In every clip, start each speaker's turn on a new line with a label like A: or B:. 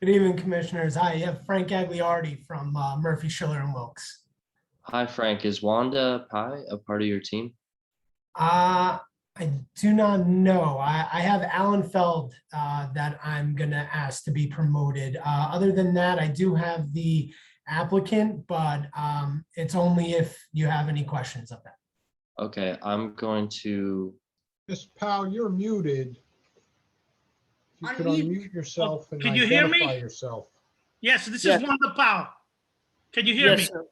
A: Good evening, Commissioners. I have Frank Agliardi from uh, Murphy, Schiller and Wilkes.
B: Hi, Frank. Is Wanda Pi a part of your team?
A: Uh, I do not know. I, I have Alan Feld uh, that I'm gonna ask to be promoted. Uh, Other than that, I do have the applicant, but um, it's only if you have any questions of that.
B: Okay, I'm going to,
C: Miss Powell, you're muted. If You could
D: Unmute.
C: unmute yourself and
D: Can you hear me?
C: identify yourself.
D: Yes, this
E: Yeah.
D: is Wanda Powell. Can you hear me?
E: Yes, sir.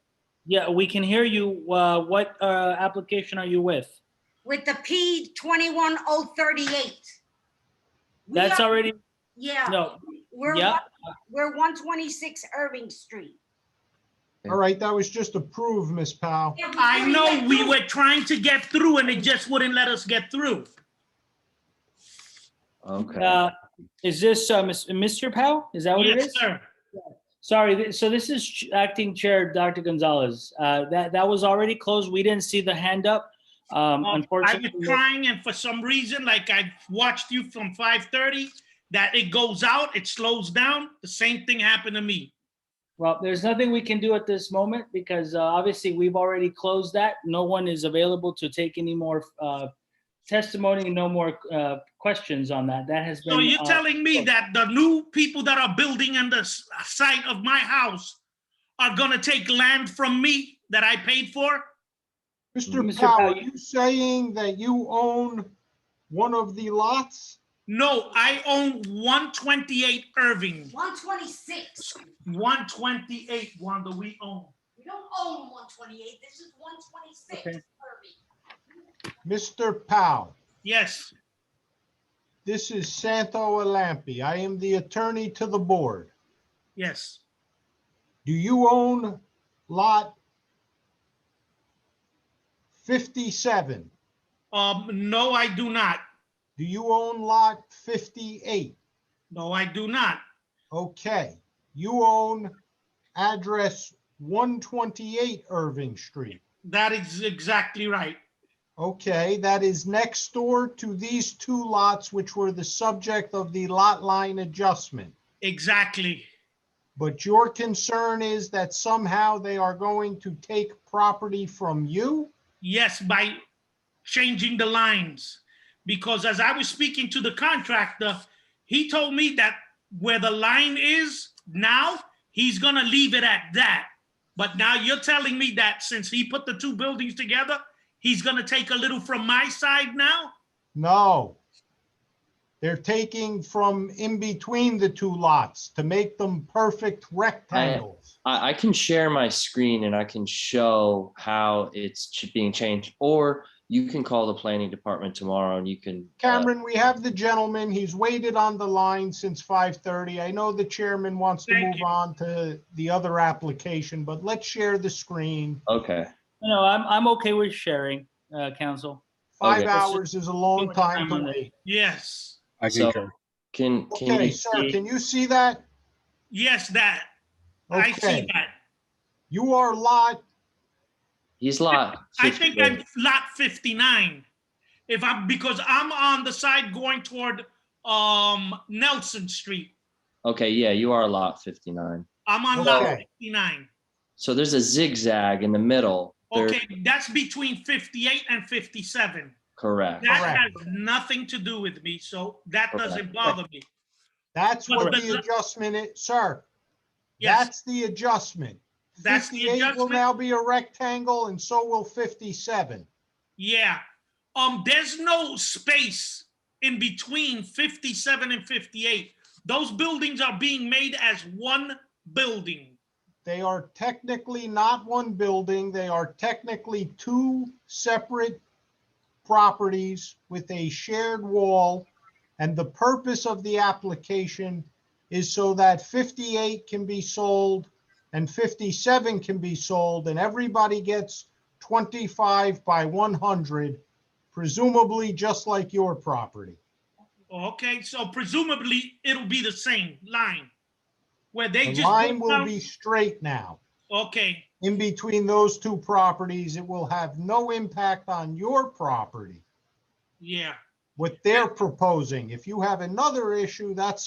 E: Yeah, we can hear you. Uh, What uh, application are you with?
F: with the P twenty-one oh thirty-eight.
E: That's already,
F: Yeah,
E: no,
F: we're,
E: yeah,
F: one- we're one twenty-six Irving Street.
C: All right, that was just approved, Miss Powell.
F: Yeah, we
D: I
F: already
D: know
F: went
D: we
F: through
D: were trying to get through and it just wouldn't let us get through.
B: okay,
E: uh, is this uh, Miss- Mr. Powell? Is that what Oh, it
D: Yes,
E: is?
D: sir.
E: Sorry, th- so this is Ch- Acting Chair Dr. Gonzalez. Uh, That, that was already closed. We didn't see the hand up. Um,
D: Um, I
E: Unfortunately,
D: was trying and for some reason, like I watched you from five thirty, that it goes out, it slows down. The same thing happened to me.
E: well, there's nothing we can do at this moment because uh, obviously we've already closed that. No one is available to take any more uh, testimony, no more uh, questions on that. That has been.
D: So you're
E: uh,
D: telling me
E: closed.
D: that the new people that are building on the s- uh, site of my house are gonna take land from me that I paid for?
C: Mr.
E: Mr.
C: Powell,
E: Powell,
C: are you saying that you own one of the lots?
D: No, I own one twenty-eight Irving.
F: One twenty-six.
D: 128, Wanda, we own.
F: We don't own one twenty-eight. This is one twenty-six
E: Okay.
F: Irving.
C: Mr. Powell,
D: Yes,
C: this is Santo Alampi. I am the attorney to the board.
D: yes.
C: Do you own lot 57?
D: Um, no, I do not.
C: Do you own lot 58?
D: No, I do not.
C: Okay, you own address one twenty-eight Irving Street.
D: That is exactly right.
C: Okay, that is next door to these two lots which were the subject of the lot line adjustment.
D: Exactly.
C: But your concern is that somehow they are going to take property from you?
D: Yes, by changing the lines. Because as I was speaking to the contractor, he told me that where the line is now, he's gonna leave it at that. But now you're telling me that since he put the two buildings together, he's gonna take a little from my side now?
C: No. They're taking from in between the two lots to make them perfect rectangles.
B: I, I can share my screen and I can show how it's ch- being changed. Or you can call the planning department tomorrow and you can. uh,
C: Cameron, we have the gentleman. He's waited on the line since five thirty. I know the chairman wants to
D: Thank
C: move
D: you.
C: on to the other application, but let's share the screen.
B: uh, Okay,
E: No, I'm, I'm okay with sharing, uh, counsel.
C: Five
B: Okay.
C: hours is a long
E: much
C: time
E: time
C: to
E: on
C: wait.
D: Yes,
G: I
B: so
G: concur.
B: can, can
C: Okay,
B: you
C: sir,
B: see?
C: can you see that?
D: yes, that. I see
C: Okay,
D: that.
C: you are lot,
B: He's lot.
D: I think
B: 58.
D: I'm lot fifty-nine. If I'm, because I'm on the side going toward, um, Nelson Street.
B: Okay, yeah, you are lot fifty-nine.
D: I'm on lot
C: Okay.
D: fifty-nine.
B: So there's a zigzag in the middle. There-
D: Okay, that's between fifty-eight and fifty-seven.
B: Correct.
D: That has
C: Correct.
D: nothing to do with me, so that doesn't
B: Correct.
D: bother me.
C: that's
D: But
C: what
D: the-
C: the adjustment is, sir.
D: Yes,
C: That's the adjustment.
D: That's the
C: Fifty-eight will
D: adjustment?
C: now be a rectangle and so will fifty-seven.
D: yeah. Um, there's no space in between fifty-seven and fifty-eight. Those buildings are being made as one building.
C: They are technically not one building, they are technically two separate properties with a shared wall. And the purpose of the application is so that 58 can be sold and 57 can be sold and everybody gets 25 by 100, presumably just like your property.
D: Okay, so presumably it'll be the same line where they
C: The
D: just.
C: line
D: go
C: will
D: down-
C: be straight now.
D: Okay,
C: in between those two properties, it will have no impact on your property,
D: yeah.
C: what they're proposing. If you have another issue, that's